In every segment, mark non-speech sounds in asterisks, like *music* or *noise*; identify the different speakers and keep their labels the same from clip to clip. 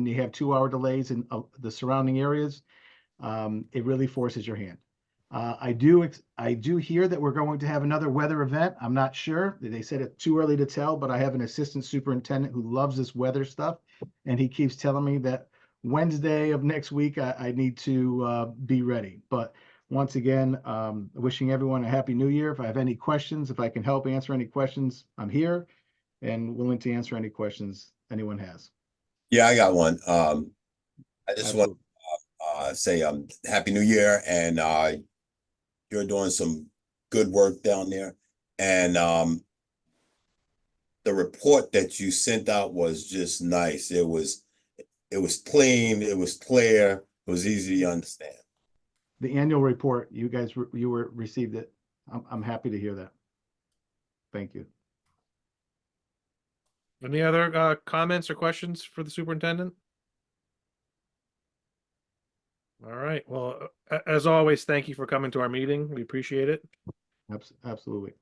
Speaker 1: and you have two hour delays in uh, the surrounding areas, um, it really forces your hand. Uh, I do, ex- I do hear that we're going to have another weather event. I'm not sure. They said it's too early to tell, but I have an assistant superintendent who loves this weather stuff. And he keeps telling me that Wednesday of next week, I, I need to, uh, be ready. But once again, um, wishing everyone a happy new year. If I have any questions, if I can help answer any questions, I'm here and willing to answer any questions anyone has.
Speaker 2: Yeah, I got one. Um, I just
Speaker 1: Absolutely.
Speaker 2: want uh say um happy new year and uh you're doing some good work down there and um the report that you sent out was just nice. It was it was clean, it was clear, it was easy to understand.
Speaker 1: The annual report, you guys, re- you were, received it. I'm, I'm happy to hear that. Thank you.
Speaker 3: Any other uh, comments or questions for the superintendent? All right, well, a- as always, thank you for coming to our meeting. We appreciate it.
Speaker 1: Abs- Absolutely.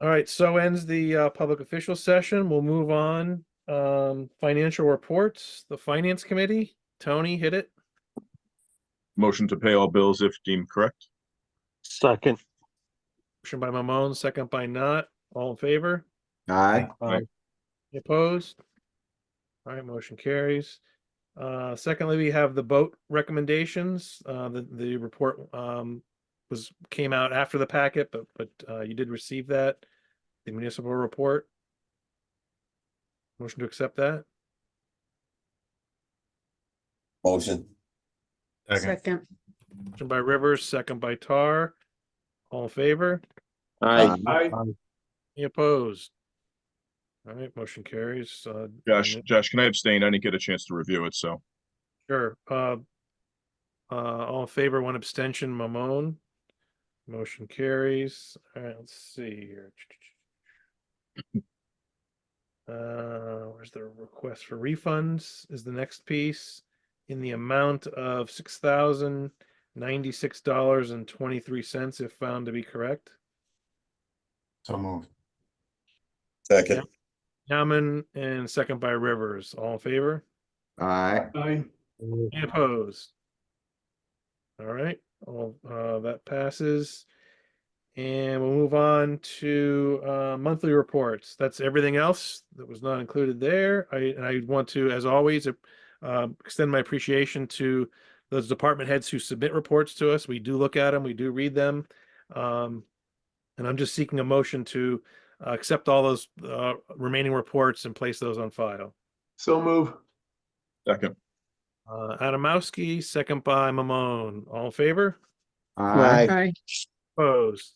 Speaker 3: All right, so ends the uh, public official session. We'll move on. Um, Financial reports, the Finance Committee. Tony, hit it.
Speaker 4: Motion to pay all bills if deemed correct.
Speaker 5: Second.
Speaker 3: Motion by Mamon, second by Not. All in favor?
Speaker 6: Aye.
Speaker 4: Aye.
Speaker 3: Any Opposed? All right, motion carries. Uh, secondly, we have the boat recommendations. Uh, the, the report, um, was, came out after the packet, but, but, uh, you did receive that, the municipal report. Motion to accept that.
Speaker 2: Motion.
Speaker 7: Second.
Speaker 3: Motion by Rivers, second by Tar. All in favor?
Speaker 6: Aye.
Speaker 3: Any opposed? All right, motion carries. Uh,
Speaker 4: Josh,
Speaker 3: Yep.
Speaker 4: Josh, can I abstain? I didn't get a chance to review it, so.
Speaker 3: Sure. Uh, uh, all in favor, one abstention, Mamone. Motion carries. All right, let's see here. *clears throat* Uh, where's the request for refunds is the next piece in the amount of six thousand ninety-six dollars and twenty-three cents if found to be correct.
Speaker 6: So moved.
Speaker 2: Second.
Speaker 3: Yaman and second by Rivers. All in favor?
Speaker 6: Aye.
Speaker 3: Any opposed? All right, all, uh, that passes. And we'll move on to, uh, monthly reports. That's everything else that was not included there. I, and I want to, as always, uh, um, extend my appreciation to those department heads who submit reports to us. We do look at them, we do read them. Um, and I'm just seeking a motion to, uh, accept all those, uh, remaining reports and place those on file.
Speaker 6: So move.
Speaker 4: Second,
Speaker 3: Uh, Adamowski, second by Mamone. All in favor?
Speaker 6: Aye.
Speaker 7: Aye.
Speaker 3: Opposed?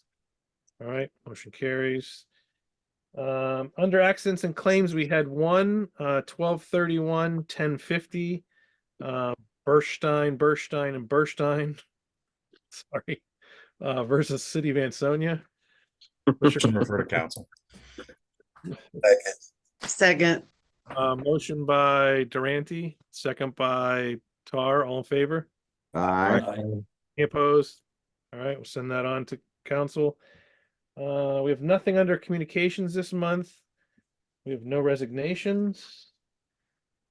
Speaker 3: All right, motion carries. Um, under accidents and claims, we had one, uh, twelve thirty-one, ten fifty. Uh, Berstein, Berstein and Berstein. *laughs* Sorry, uh, versus City of Ansonia.
Speaker 8: refer to council.
Speaker 2: Second.
Speaker 7: Second.
Speaker 3: Uh, motion by Durante, second by Tar, all in favor?
Speaker 6: Aye.
Speaker 3: Any Opposed? All right, we'll send that on to council. Uh, we have nothing under communications this month. We have no resignations.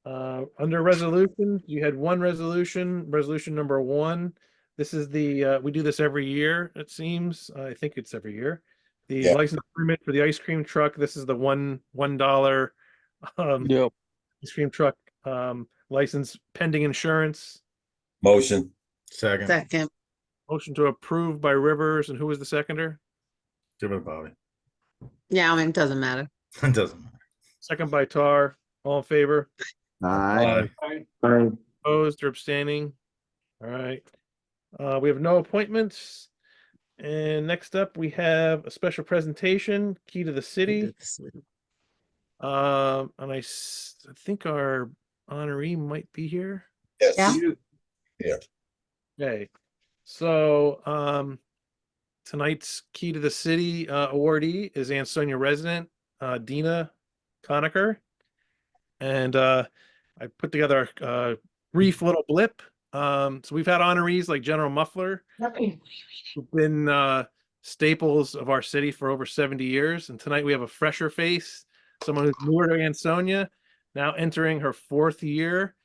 Speaker 3: Uh, under resolution, you had one resolution, resolution number one. This is the, uh, we do this every year, it seems. I think it's every year. The
Speaker 2: Yeah.
Speaker 3: license permit for the ice cream truck, this is the one, one dollar um,
Speaker 5: Yep.
Speaker 3: ice cream truck, um, license pending insurance.
Speaker 2: Motion.
Speaker 8: Second,
Speaker 7: Second.
Speaker 3: Motion to approve by Rivers, and who was the seconder?
Speaker 8: give it to Bobby.
Speaker 7: Yeah, I mean, it doesn't matter.
Speaker 8: It doesn't matter.
Speaker 3: Second by Tar, all in favor,
Speaker 6: Aye.
Speaker 3: opposed or abstaining? All right, uh, we have no appointments. And next up, we have a special presentation, Key to the City. Um, and I s- I think our honoree might be here.
Speaker 2: Yes.
Speaker 7: Yeah.
Speaker 3: Okay, so, um, tonight's Key to the City, uh, awardee is Ansonia resident, uh, Dina Conacher. And, uh, I put together a uh, brief little blip. Um, so we've had honorees like General Muffler, who've been, uh, staples of our city for over seventy years. And tonight we have a fresher face, someone who's newer to Ansonia, now entering her fourth year